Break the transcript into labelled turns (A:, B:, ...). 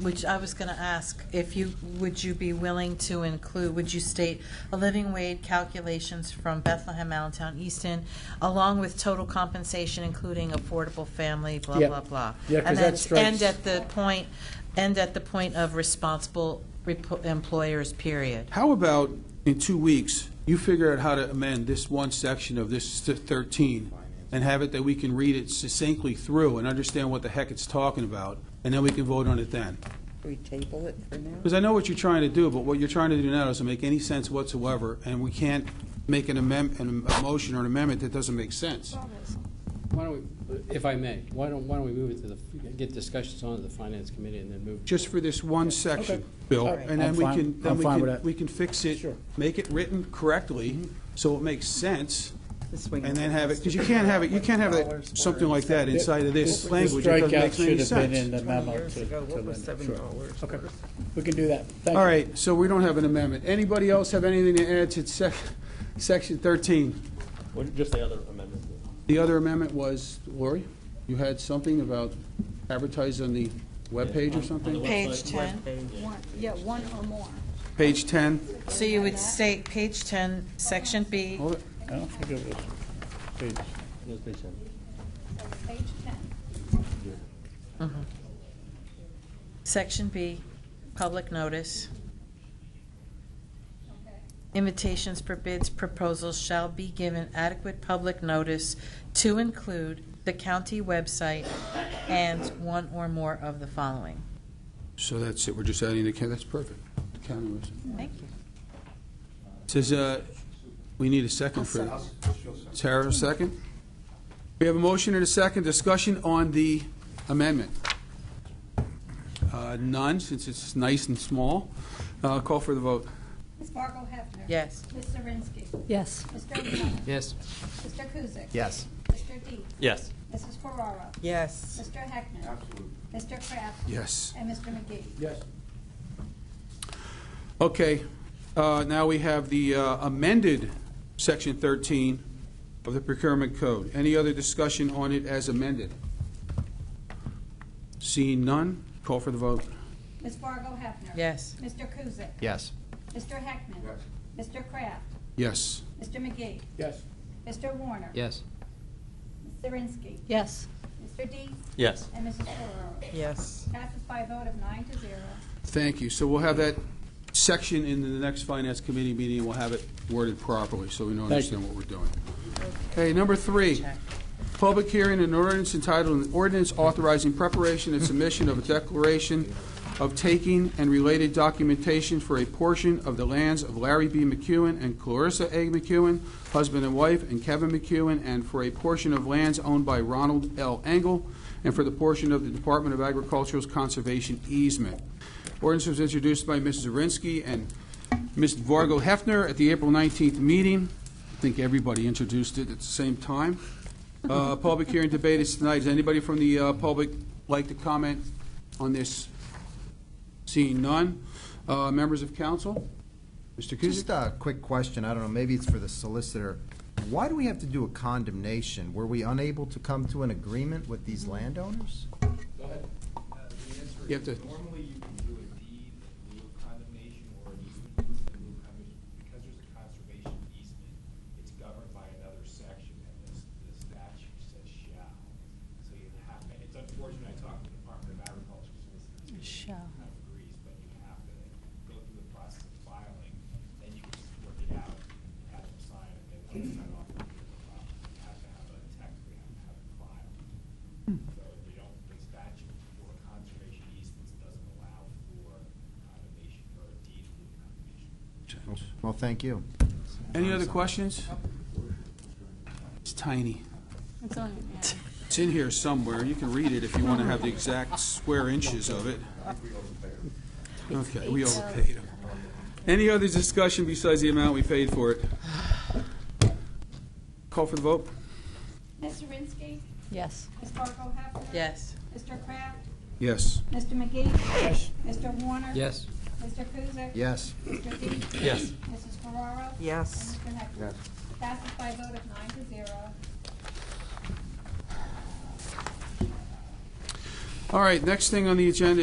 A: which I was going to ask, if you, would you be willing to include, would you state a living wage calculations from Bethlehem, Allentown, Easton, along with total compensation, including affordable family, blah,
B: Yeah.
A: blah, blah?
B: Yeah, 'cause
A: And
B: that
A: then
B: strikes-
A: End at the point, end at the point of responsible repo- employers, period.
C: How about in two weeks, you figure out how to amend this one section of this th- 13 and have it that we can read it succinctly through and understand what the heck it's talking about, and then we can vote on it then?
D: We table it for now?
C: Because I know what you're trying to do, but what you're trying to do now doesn't make any sense whatsoever, and we can't make an amendment, a motion or an amendment that doesn't make sense.
E: Why don't we, if I may, why don't, why don't we move it to the, get discussions on to the finance committee and then move?
C: Just for this one section, Bill,
B: All right.
C: and then
B: I'm
C: we
B: fine-
C: can, then
B: I'm
C: we
B: fine with
C: can,
B: that. Mm-hmm.
C: we can fix it,
B: Sure.
C: make it written correctly, so it makes sense,
D: This way.
C: and then have it, because you can't have it, you can't have it, something like that inside of this language, it doesn't make any
B: Strikeout should have been in
C: sense.
B: the memo
D: Years
B: to,
D: ago,
B: to
D: what was
B: Linda.
D: seven
B: Sure.
D: dollars?
B: Okay, we can do that. Thank
C: All
B: you.
C: right, so we don't have an amendment. Anybody else have anything to add to sec, section thirteen?
F: Well, Just the other amendment.
C: The other amendment was, Lori, you had something about advertise on the webpage or something?
A: Page 10.
G: One, yeah, one or more.
C: Page ten?
A: So you would state page 10, section B,
C: Hold it.
B: I don't think it was page-
F: Yes, page ten.
G: So page ten.
A: Section B, public notice. Invitations for bids proposals shall be given adequate public notice to include the county website and one or more of the following.
C: So that's it, we're just adding the, ca- that's perfect. The county was-
A: Thank you.
C: Says, uh, we need a second for this. Tara, a second? We have a motion and a second discussion on the amendment. Uh, None, since it's nice and small. Uh, Call for the vote.
G: Ms. Fargo Hefner.
A: Yes.
G: Ms. Zirinsky.
H: Yes.
G: Mr. O'Connor.
E: Yes.
G: Mr. Kuzic.
B: Yes.
G: Mr. Deep.
F: Yes.
G: Mrs. Ferraro.
D: Yes.
G: Mr. Heckman. Mr. Kraft.
C: Yes.
G: And Mr. McGee.
C: Yes. Okay, uh, now we have the uh, amended Section 13 of the procurement code. Any other discussion on it as amended? Seeing none, call for the vote.
G: Ms. Fargo Hefner.
A: Yes.
G: Mr. Kuzic.
E: Yes.
G: Mr. Heckman. Mr. Kraft.
C: Yes.
G: Mr. McGee.
B: Yes.
G: Mr. Warner.
E: Yes.
G: Ms. Zirinsky.
H: Yes.
G: Mr. Deep.
F: Yes.
G: And Mrs. Ferraro.
D: Yes.
G: Passes by a vote of nine to zero.
C: Thank you. So we'll have that section in the next Finance Committee meeting, we'll have it worded properly, so we know
B: Thank you.
C: understand what we're doing. Okay, number three, public hearing and ordinance entitled, an ordinance authorizing preparation and submission of a declaration of taking and related documentation for a portion of the lands of Larry B. McEwen and Clarissa A. McEwen, husband and wife, and Kevin McEwen, and for a portion of lands owned by Ronald L. Engel, and for the portion of the Department of Agricultural's conservation easement. Ordinance was introduced by Mrs. Zirinsky and Ms. Vargo Hefner at the April 19th meeting. I think everybody introduced it at the same time. Uh, Public hearing debate is tonight. Does anybody from the uh, public like to comment on this? Seeing none. Uh, Members of council? Mr.
I: Just
C: Kuzic?
I: a quick question, I don't know, maybe it's for the solicitor. Why do we have to do a condemnation? Were we unable to come to an agreement with these landowners?
J: Go ahead. Uh, The answer
C: You have
J: is
C: to-
J: normally you can do a deed in lieu of condemnation or an easement in lieu of condemnation. Because there's a conservation easement, it's governed by another section and this, the statute says shall. So you have, and it's unfortunate, I talked to the Department of Agriculture solicitors.
H: Shall.
J: Kind of agrees, but you have to go through the process of filing, then you can just work it out, have them sign it, they want to sign off on your property. You have to have a tech, you have to have it filed. So we don't, the statute for conservation easements doesn't allow for condemnation or a deed in lieu of condemnation.
I: Well, thank you.
C: Any other questions? It's tiny.
G: It's on,
C: It's in here somewhere. You can read it if you want to have the exact square inches of it. Okay, we overpaid them. Any other discussion besides the amount we paid for it? Call for the vote?
G: Ms. Zirinsky.
H: Yes.
G: Ms. Fargo Hefner.
A: Yes.
G: Mr. Kraft.
C: Yes.
G: Mr. McGee. Mr. Warner.
E: Yes.
G: Mr. Kuzic.
I: Yes.
G: Mr. Dees.
F: Yes.
G: Mrs. Ferraro.
D: Yes.
G: And Mr. Heckman.
I: Yes.
G: Passes by a vote of nine to zero.
C: All right, next thing on the agenda is